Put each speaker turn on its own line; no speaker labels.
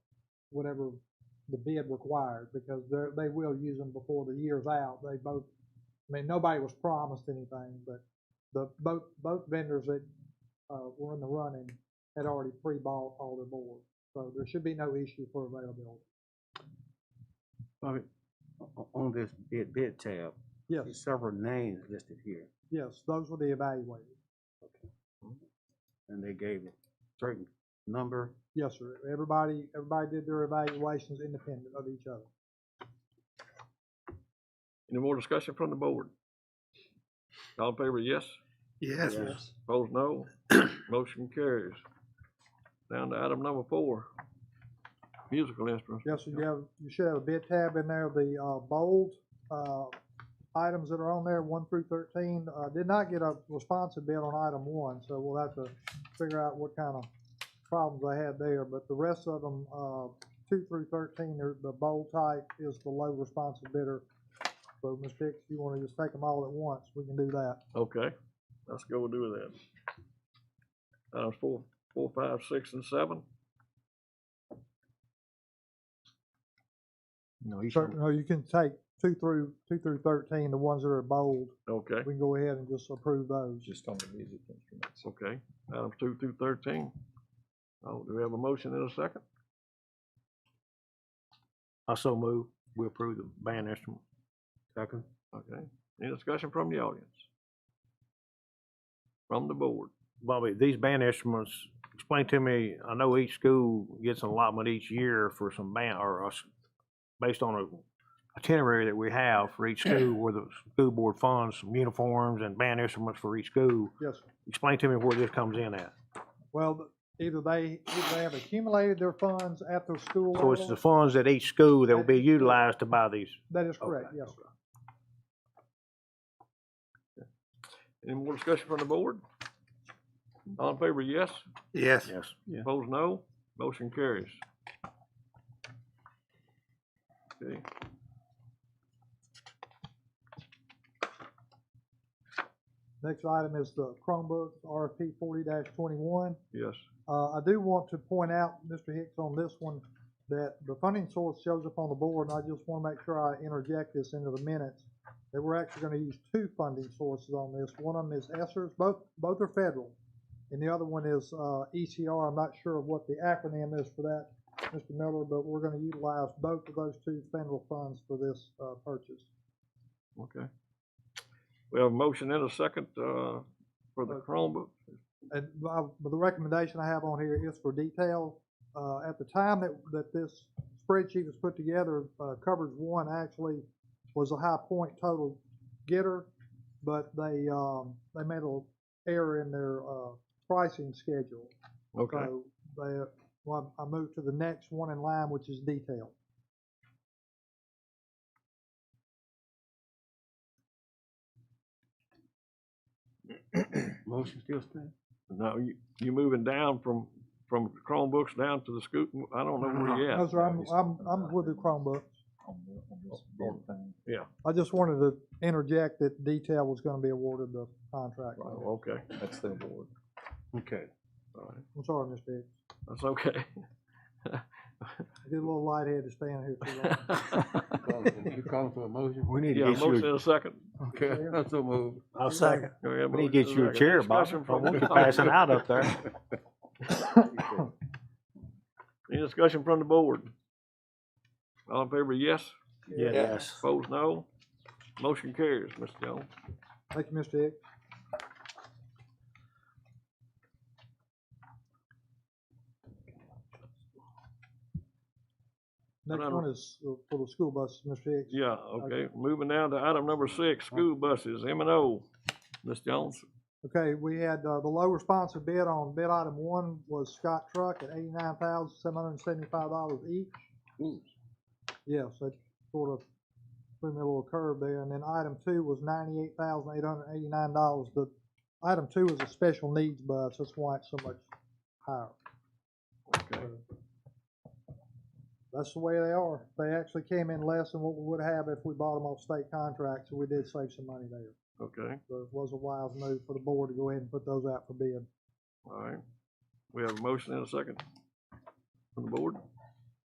whatever the bid required, because they're, they will use them before the year's out. They both, I mean, nobody was promised anything, but the, both, both vendors that, uh, were in the running had already pre-bought all their boards. So there should be no issue for availability.
Bobby, o- on this bid, bid tab,
Yes,
there's several names listed here,
yes, those were the evaluated.
and they gave a certain number.
Yes, sir. Everybody, everybody did their evaluations independent of each other.
Any more discussion from the board? All in favor, yes?
Yes.
Opposed, no? Motion carries. Down to item number four, musical instruments.
Yes, sir, you have, you should have a bid tab in there, the, uh, bold, uh, items that are on there, one through thirteen, uh, did not get a responsive bid on item one, so we'll have to figure out what kind of problems they had there, but the rest of them, uh, two through thirteen, they're, the bold type is the low responsive bidder. So, Ms. Hicks, if you wanna just take them all at once, we can do that.
Okay, let's go and do that. Items four, four, five, six, and seven.
No, each,
Certain, no, you can take two through, two through thirteen, the ones that are bold,
Okay,
we can go ahead and just approve those.
just on the music instruments.
okay. Items two through thirteen. Oh, do we have a motion in a second?
I so move, we approve the band instrument. Second.
Okay. Any discussion from the audience? From the board?
Bobby, these band instruments, explain to me, I know each school gets an allotment each year for some band, or us, based on a itinerary that we have for each school, where the school board funds some uniforms and band instruments for each school.
Yes, sir.
Explain to me where this comes in at.
Well, th- either they, either they have accumulated their funds at their school
So it's the
level.
funds at each school that will be utilized to buy these.
That is correct, yes. sir.
Any more discussion from the board? All in favor, yes?
Yes.
Yes. Yeah.
Opposed, no? Motion carries. Okay.
Next item is the Chromebooks RFP forty twenty-one.
Yes,
Uh, I do want to point out, Mr. Hicks, on this one, that the funding source shows up on the board, and I just want to make sure I interject this into the minutes, that we're actually going to use two funding sources on this. One of them is ESSER's, both, both are federal, and the other one is, uh, ECR. I'm not sure of what the acronym is for that, Mr. Miller, but we're going to utilize both of those two federal funds for this, uh, purchase.
okay. We have a motion and a second, uh, for the Chromebook.
And I- but the recommendation I have on here is for detail. Uh, At the time that, that this spreadsheet was put together, uh, coverage one actually was a high point total getter, but they, um, they made a error in their uh, pricing schedule.
Okay,
So they, well, I moved to the next one in line, which is detail.
Motion still stands?
now you, you moving down from, from Chromebooks down to the scoop, I don't know where you
No,
at.
sir, I'm, I'm, I'm with the Chromebook. I just wanted to interject that detail was going to be awarded the contract.
Oh, okay,
That's the award.
Okay.
all right,
I'm sorry, Mr. Hicks.
that's okay.
I Get a little lightheaded staying here too long.
You calling for a motion?
We need
Yeah,
to get
motion
you,
and a second.
Okay, that's a move.
I'll second.
We have a
We need
motion
to get
and
you a
second.
chair, Bob. I
Discussion from
want
the
you passing
audience.
out up there.
Any discussion from the board? All in favor, yes?
Yes.
Opposed, no? Motion carries, Mr. Jones.
Thank you, Mr. Hicks. Next
Madam-
one is uh, for the school buses, Mr. Hicks.
Yeah, okay, moving down to item number six, school buses, M and O. Ms. Jones,
Okay, we had, uh, the low responsive bid on bid item one was Scott Truck at eighty-nine thousand, seven hundred and seventy-five dollars each. Yes, that sort of threw me a little curve there. And then item two was ninety-eight thousand, eight hundred and eighty-nine dollars. The, item two is a special needs bus, that's why it's so much higher.
okay,
That's the way they are. They actually came in less than what we would have if we bought them off state contracts, so we did save some money there.
okay,
So it was a wise move for the board to go ahead and put those out for bid.
all right. We have a motion and a second from the board.